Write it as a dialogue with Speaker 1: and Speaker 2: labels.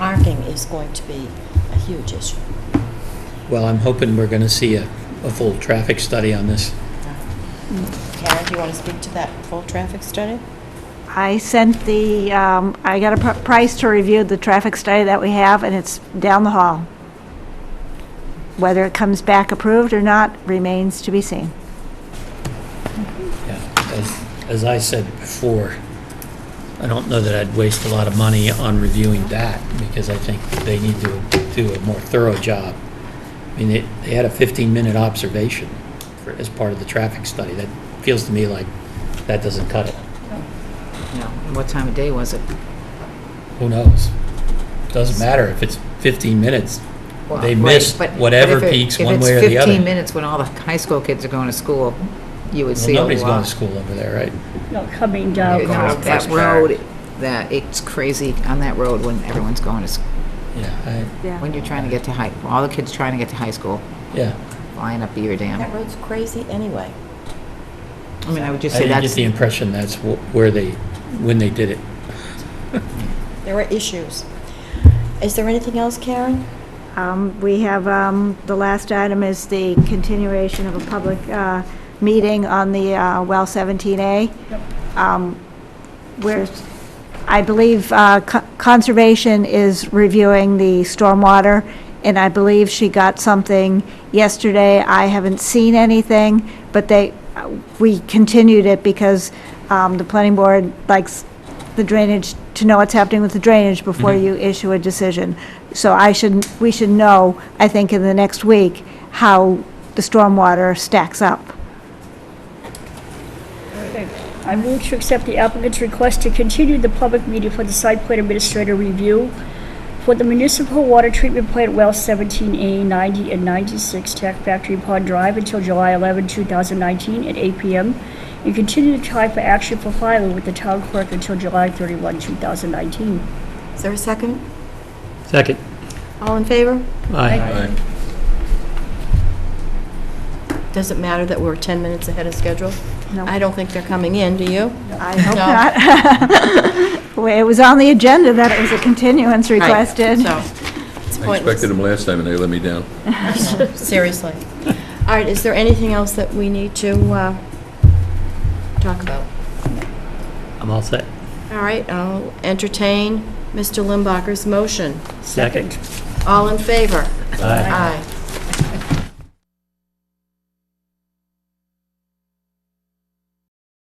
Speaker 1: is going to be a huge issue.
Speaker 2: Well, I'm hoping we're going to see a, a full traffic study on this.
Speaker 1: Karen, do you want to speak to that full traffic study?
Speaker 3: I sent the, um, I got a pr- price to review the traffic study that we have, and it's down the hall. Whether it comes back approved or not remains to be seen.
Speaker 2: Yeah, as, as I said before, I don't know that I'd waste a lot of money on reviewing that because I think they need to do a more thorough job. I mean, they, they had a 15-minute observation for, as part of the traffic study. That feels to me like that doesn't cut it.
Speaker 4: No, and what time of day was it?
Speaker 2: Who knows? Doesn't matter if it's 15 minutes.
Speaker 4: Well,
Speaker 2: They
Speaker 4: right,
Speaker 2: missed
Speaker 4: but- but
Speaker 2: whatever
Speaker 4: if it-
Speaker 2: peaks one way or
Speaker 4: If
Speaker 2: the
Speaker 4: it's
Speaker 2: other.
Speaker 4: 15 minutes when all the high school kids are going to school, you would
Speaker 2: Well,
Speaker 4: see a lot.
Speaker 2: nobody's going to school over there, right?
Speaker 5: No, coming
Speaker 4: You
Speaker 5: down.
Speaker 4: know, That road, that, it's crazy on that road when everyone's going to, s-
Speaker 2: Yeah,
Speaker 4: when you're trying to get to high, all the kids trying to get to high school,
Speaker 2: I, yeah.
Speaker 4: flying up Beaver
Speaker 1: That
Speaker 4: Dam.
Speaker 1: road's crazy anyway.
Speaker 4: I mean, I would just
Speaker 2: I
Speaker 4: say
Speaker 2: didn't
Speaker 4: that's,
Speaker 2: get the impression that's wh- where they, when they did it.
Speaker 1: There were issues. Is there anything else, Karen?
Speaker 3: Um, We have, um, the last item is the continuation of a public uh, meeting on the uh, well 17A. Um, Where, I believe uh, Co- Conservation is reviewing the stormwater, and I believe she got something yesterday. I haven't seen anything, but they, we continued it because um, the planning board likes the drainage, to know what's happening with the drainage before
Speaker 2: Mhm.
Speaker 3: you issue a decision. So I should, we should know, I think, in the next week, how the stormwater stacks up.
Speaker 5: I move to accept the applicant's request to continue the public meeting for the site plan administrator review for the municipal water treatment plant well 17A 90 and 96 Tech Factory Pond Drive until July 11, 2019 at 8 p.m. and continue the time for action for filing with the town clerk until July 31, 2019.
Speaker 1: Is there a second?
Speaker 2: Second.
Speaker 1: All in favor?
Speaker 2: Aye.
Speaker 1: Does it matter that we're 10 minutes ahead of schedule?
Speaker 3: No.
Speaker 1: I don't think they're coming in, do you?
Speaker 3: I hope not. Well, It was on the agenda that it was a continuance requested.
Speaker 1: So, it's
Speaker 6: I expected
Speaker 1: pointless,
Speaker 6: them last time and they let me down.
Speaker 1: seriously. All right, is there anything else that we need to uh, talk about?
Speaker 2: I'm all set.
Speaker 1: All right, I'll entertain Mr. Limbacher's motion.
Speaker 2: Second.
Speaker 1: All in favor?
Speaker 2: Aye.
Speaker 1: Aye.